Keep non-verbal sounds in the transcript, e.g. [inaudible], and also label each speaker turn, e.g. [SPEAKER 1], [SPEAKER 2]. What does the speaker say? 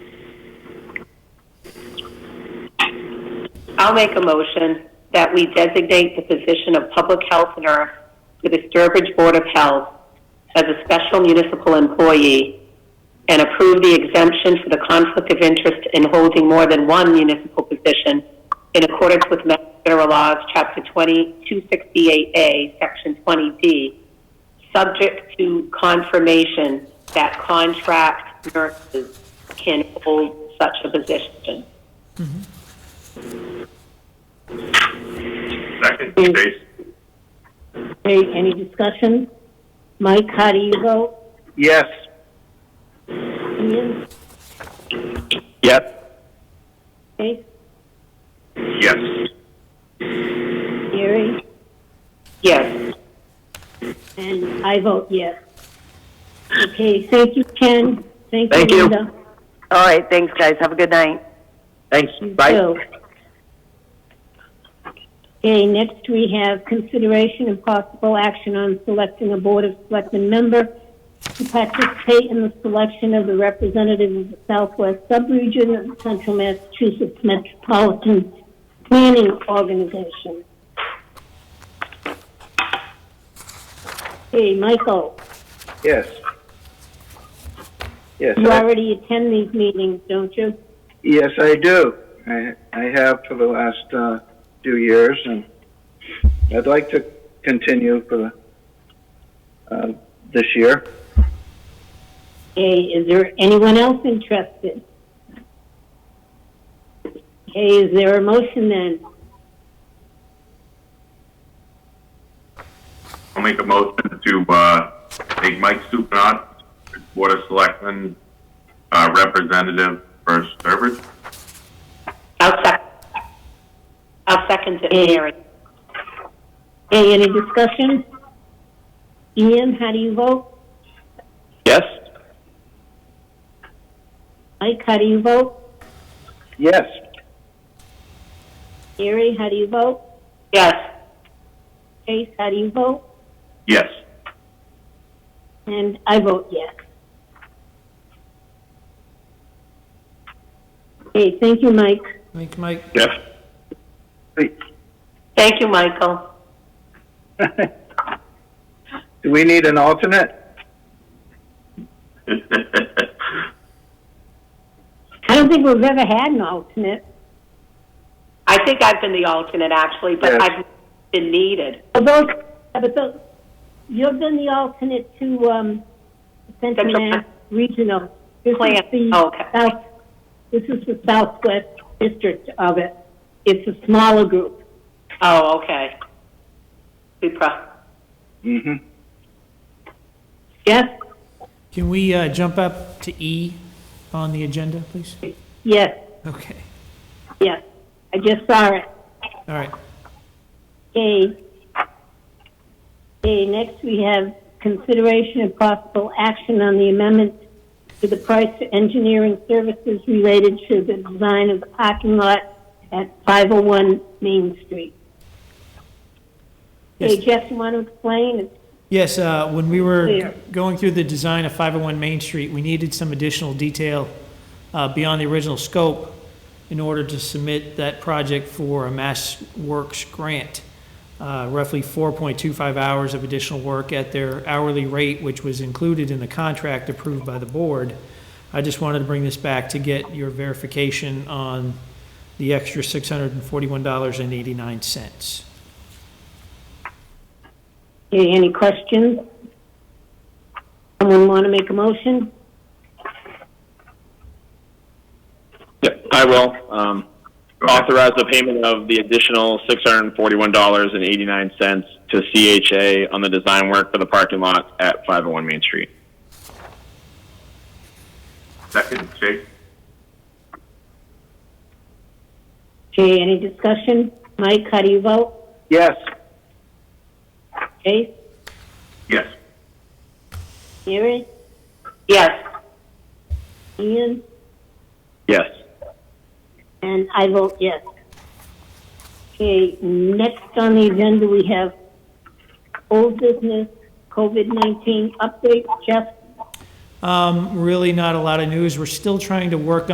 [SPEAKER 1] I'll make a motion that we designate the position of public health nurse to the Sturbridge Board of Health as a special municipal employee and approve the exemption for the conflict of interest in holding more than one municipal position in accordance with Mass General Laws, Chapter 20, 268A, Section 20D, subject to confirmation that contract nurses can hold such a position.
[SPEAKER 2] Second,
[SPEAKER 3] Mm.
[SPEAKER 2] Chase?
[SPEAKER 3] Great, any discussion? Mike, how do you vote?
[SPEAKER 2] Yes.
[SPEAKER 3] Ian,
[SPEAKER 2] Yep.
[SPEAKER 3] Faith,
[SPEAKER 2] Yes.
[SPEAKER 3] Gary,
[SPEAKER 1] Yes,
[SPEAKER 3] and I vote yes. Okay, thank you, Ken. Thank
[SPEAKER 4] Thank
[SPEAKER 3] you,
[SPEAKER 4] you.
[SPEAKER 3] Linda.
[SPEAKER 5] All right, thanks, guys. Have a good night.
[SPEAKER 4] Thanks,
[SPEAKER 3] You
[SPEAKER 4] bye.
[SPEAKER 3] too. Okay, next we have consideration and possible action on selecting a Board of Selectmen member to participate in the selection of the representative of the Southwest Subregion of the Central Massachusetts Metropolitan Planning Organization. Hey, Michael,
[SPEAKER 6] Yes. Yes,
[SPEAKER 3] you
[SPEAKER 6] I,
[SPEAKER 3] already attend these meetings, don't you?
[SPEAKER 6] yes, I do. I, I have for the last uh, few years, and I'd like to continue for the uh, this year.
[SPEAKER 3] Okay, is there anyone else interested? Okay, is there a motion then?
[SPEAKER 2] I'll make a motion to, uh, make Mike Supranot, Board of Selectmen, uh, representative for [laughs] Sturbridge.
[SPEAKER 1] I'll second, I'll second it,
[SPEAKER 5] Mm-hmm.
[SPEAKER 3] Yeah.
[SPEAKER 1] Mary.
[SPEAKER 3] Okay, any discussion? Ian, how do you vote?
[SPEAKER 4] Yes?
[SPEAKER 3] Mike, how do you vote?
[SPEAKER 6] Yes,
[SPEAKER 3] Gary, how do you vote?
[SPEAKER 1] Yes,
[SPEAKER 3] Chase, how do you vote?
[SPEAKER 2] Yes.
[SPEAKER 3] And I vote yes. Okay, thank you, Mike.
[SPEAKER 7] Thank you, Mike.
[SPEAKER 2] Yes.
[SPEAKER 1] thank you, Michael.
[SPEAKER 6] [laughs] do we need an alternate?
[SPEAKER 3] I don't think we've ever had an alternate,
[SPEAKER 1] I think I've been the alternate actually, but
[SPEAKER 6] Yes.
[SPEAKER 1] I've been needed.
[SPEAKER 3] but those, but those, you've been the alternate to, um, Central
[SPEAKER 1] Central
[SPEAKER 3] Mass Regional. This is
[SPEAKER 1] Plan. Oh,
[SPEAKER 3] the
[SPEAKER 1] Okay.
[SPEAKER 3] South, this is the Southwest District of it. It's a smaller group.
[SPEAKER 1] Oh, okay. We pro-
[SPEAKER 6] hmm
[SPEAKER 3] Yes,
[SPEAKER 7] Can we uh, jump up to E on the agenda, please?
[SPEAKER 3] yes,
[SPEAKER 7] Okay,
[SPEAKER 3] yes. I just saw it.
[SPEAKER 7] all right.
[SPEAKER 3] Okay. Okay, next we have consideration and possible action on the amendment to the price for engineering services related to the design of the parking lot at 501 Main Street. Okay,
[SPEAKER 7] Yes.
[SPEAKER 3] Jeff, you want to explain? It's
[SPEAKER 7] Yes, uh, when we were
[SPEAKER 3] Clear.
[SPEAKER 7] going through the design of 501 Main Street, we needed some additional detail uh, beyond the original scope in order to submit that project for a Mass Works grant. Uh, Roughly 4.25 hours of additional work at their hourly rate, which was included in the contract approved by the board. I just wanted to bring this back to get your verification on the extra $641.89.
[SPEAKER 3] Okay, any questions? Someone want to make a motion?
[SPEAKER 8] Yeah, I will. Um, authorize the payment of the additional six hundred and forty-one dollars and eighty-nine cents to CHA on the design work for the parking lot at five oh one Main Street.
[SPEAKER 2] Second, Chase?
[SPEAKER 3] Okay, any discussion? Mike, how do you vote?
[SPEAKER 6] Yes,
[SPEAKER 3] Chase,
[SPEAKER 2] Yes.
[SPEAKER 3] Mary,
[SPEAKER 1] Yes,
[SPEAKER 3] Ian,
[SPEAKER 8] Yes.
[SPEAKER 3] and I vote yes. Okay, next on the agenda, we have old business COVID-19 update. Jeff?
[SPEAKER 7] Um, Really not a lot of news. We're still trying to work